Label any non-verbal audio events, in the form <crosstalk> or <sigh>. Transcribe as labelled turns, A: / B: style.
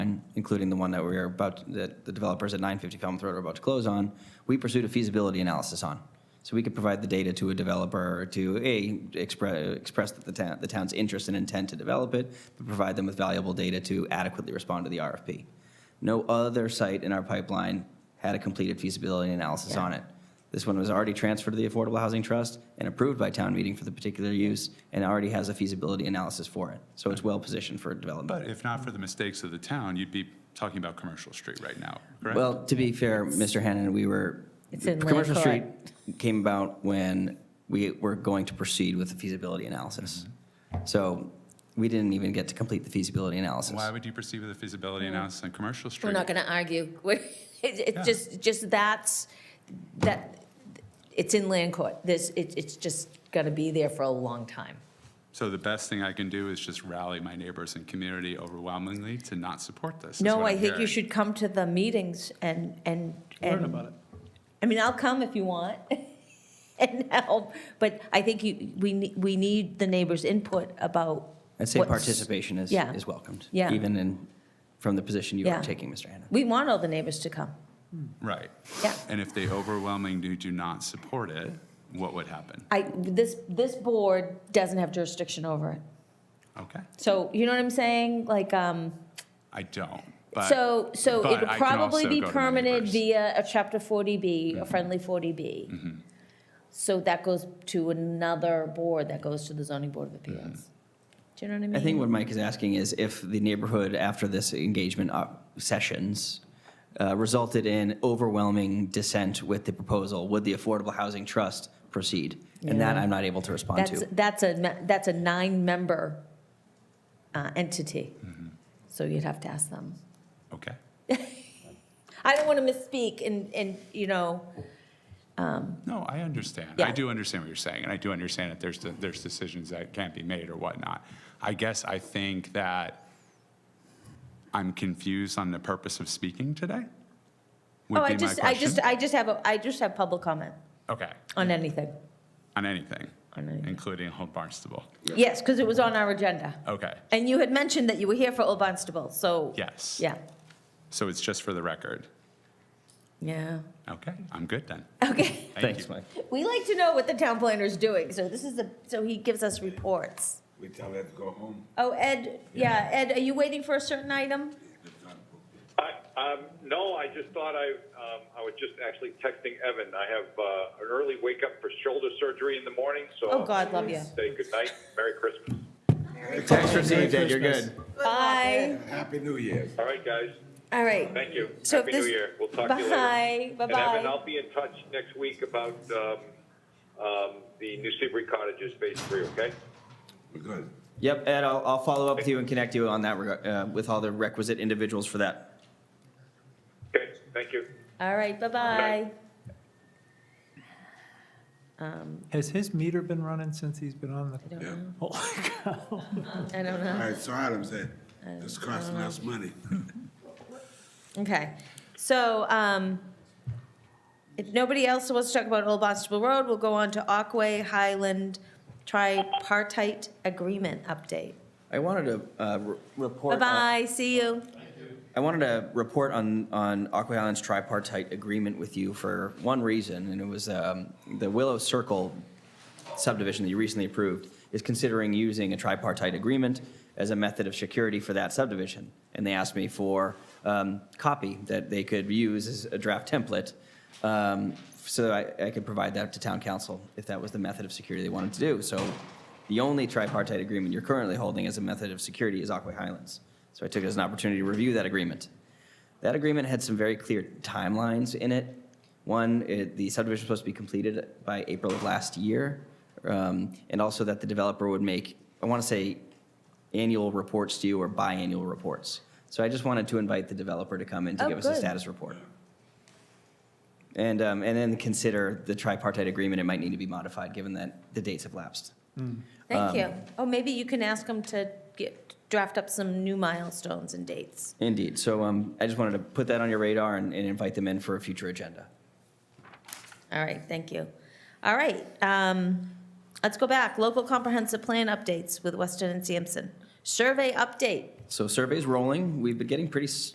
A: including the one that we're about, that the developers at 950 Falmouth Road are about to close on, we pursued a feasibility analysis on. So we could provide the data to a developer to, A, express, express that the town, the town's interest and intent to develop it, but provide them with valuable data to adequately respond to the RFP. No other site in our pipeline had a completed feasibility analysis on it. This one was already transferred to the Affordable Housing Trust and approved by town meeting for the particular use, and already has a feasibility analysis for it. So it's well-positioned for development.
B: But if not for the mistakes of the town, you'd be talking about Commercial Street right now, correct?
A: Well, to be fair, Mr. Hannon, we were,
C: It's in
A: Commercial
C: Land
A: Street
C: Court.
A: came about when we were going to proceed with the feasibility analysis. So we didn't even get to complete the feasibility analysis.
B: Why would you perceive the feasibility analysis on Commercial Street?
C: Mm. We're not going to argue. <laughs> We're- It,
B: Yeah.
C: it just, just that's, that, it's in land court. This, it, it's just going to be there for a long time.
B: So the best thing I can do is just rally my neighbors and community overwhelmingly to not support this. is
C: No,
B: what
C: I
B: I'm
C: think you
B: hearing.
C: should come to the meetings and, and.
D: Learn
C: and-
D: about it.
C: I mean, I'll come if you want <laughs> and help, but I think you, we, ne- we need the neighbors' input about.
A: I'd say
C: what's-
A: participation is,
C: Yeah.
A: is welcomed.
C: Yeah.
A: Even in, from the position you
C: Yeah.
A: are taking, Mr. Hannon.
C: We want all the neighbors to come.
B: Right.
C: Yeah.
B: And if they overwhelmingly do not support it, what would happen?
C: I, this, this board doesn't have jurisdiction over it.
B: Okay,
C: So, you know what I'm saying? Like, um,
B: I don't, but.
C: So, so
B: but
C: it'll
B: I can
C: probably
B: also
C: be
B: go to Mm-hmm. my
C: permitted
B: neighbors.
C: via a chapter forty B, a friendly forty B.
B: Mm-hmm.
C: So that goes to another board, that goes to the zoning board of appeals. Do you know what I mean?
A: I think what Mike is asking is if the neighborhood, after this engagement op- sessions, uh, resulted in overwhelming dissent with the proposal, would the Affordable Housing Trust proceed? And that I'm not able to respond
C: That's,
A: to.
C: that's a, me- that's a nine-member uh, entity.
B: Mm-hmm.
C: So you'd have to ask them.
B: Okay.
C: I don't want to misspeak and, and, you know,
B: No, I understand.
C: Yeah.
B: I do understand what you're saying, and I do understand that there's, de- there's decisions that can't be made or whatnot. I guess I think that I'm confused on the purpose of speaking today. would
C: oh, I
B: be my
C: just, I
B: question.
C: just, I just have, a I just have public comment
B: Okay,
C: on anything.
B: on anything,
C: On anything.
B: including Old Barnstable.
C: Yes, because it was on our agenda.
B: Okay,
C: And you had mentioned that you were here for Old Barnstable, so.
B: yes.
C: Yeah,
B: So it's just for the record.
C: yeah.
B: Okay, I'm good then.
C: Okay. <laughs>
B: Thank
A: Thanks,
B: you.
A: Mike.
C: We like to know what the town planner's doing, so this is a, so he gives us reports.
E: We tell her to go home.
C: Oh, Ed, yeah, Ed, are you waiting for a certain item?
F: I, um, no, I just thought I, um, I was just actually texting Evan. I have uh, an early wake up for shoulder surgery in the morning, so
C: Oh, God, love you.
F: I'll say good night, Merry Christmas.
G: Thanks for seeing Ed, you're good.
C: Bye.
E: And Happy New Year.
F: All right, guys,
C: All right.
F: thank you.
C: So if
F: Happy
C: this-
F: New Year. We'll talk to
C: Bye,
F: you later. And
C: bye-bye.
F: Evan, I'll be in touch next week about um, um, the New Seabury Cottages Phase Three. Okay.
E: We're good.
A: Yep, Ed, I'll, I'll follow up with you and connect you on that, reg- uh, with all the requisite individuals for that.
F: Okay. Thank you.
C: All right, bye-bye.
D: Has his meter been running since he's been on the?
E: Yeah.
C: I don't
E: All
C: know.
E: right, so Adam said, it's costing us money.
C: Okay, so, um, if nobody else wants to talk about Old Barnstable Road, we'll go on to Aquay Highland Tripartite Agreement update.
A: I wanted to, uh, re- report. on-
C: Bye-bye, see you.
A: I wanted to report on, on Aqua Island's tripartite agreement with you for one reason, and it was um, the Willow Circle subdivision that you recently approved is considering using a tripartite agreement as a method of security for that subdivision. And they asked me for um, copy that they could use as a draft template, um, so I, I could provide that to town council if that was the method of security they wanted to do. So the only tripartite agreement you're currently holding as a method of security is Aqua Highlands. So I took it as an opportunity to review that agreement. That agreement had some very clear timelines in it. One, it, the subdivision was supposed to be completed by April of last year, um, and also that the developer would make, I want to say, annual reports to you or biannual reports. So I just wanted to invite the developer to come in to
C: Oh,
A: give us a
C: good.
A: status report. And, um, and then consider the tripartite agreement, it might need to be modified, given that the dates have lapsed.
C: Thank you. Oh, maybe you can ask them to get, draft up some new milestones and dates.
A: Indeed, so um, I just wanted to put that on your radar and and invite them in for a future agenda.
C: All right, thank you. All right, um, let's go back. Local comprehensive plan updates with Weston and Sampson. Survey update.
A: So surveys rolling. We've been getting pretty s-